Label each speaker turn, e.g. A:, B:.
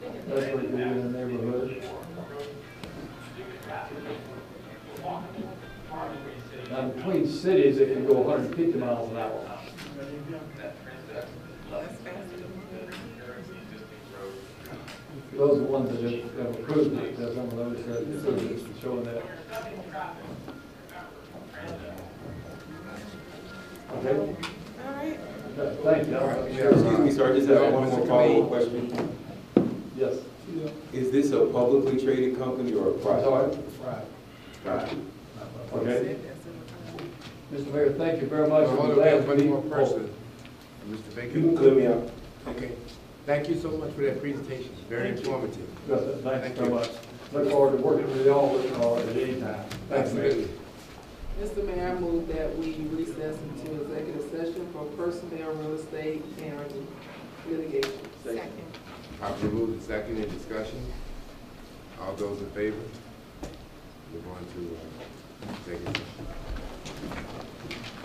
A: That's what they do in the neighborhood. Now, between cities, it can go hundred and fifty miles an hour. Those are the ones that have- have approved it, that's one of those that approved it, showing that. Okay,
B: All right,
A: Th- thank you. I'm-
C: Excuse me, sir, I just have one more follow-up question.
A: Yes.
C: Is this a publicly traded company or a private? Private.
A: Okay. Mr. Mayor, thank you very much.
D: Hold on, we have one more person. Mr.
C: You can
D: Baker.
C: clear me out.
D: Okay. Thank you so much for that presentation. Very informative.
A: Yes, sir. Thank you
D: Thank
A: so
D: you.
A: much. Look forward to working with y'all uh, at any time. Thanks, Mayor.
D: Absolutely.
E: Mr. Mayor, I move that we recess into executive session for personnel, real estate, and litigation.
B: second.
D: Properly moved and seconded, in discussion. All those in favor? We're going to, uh, take it.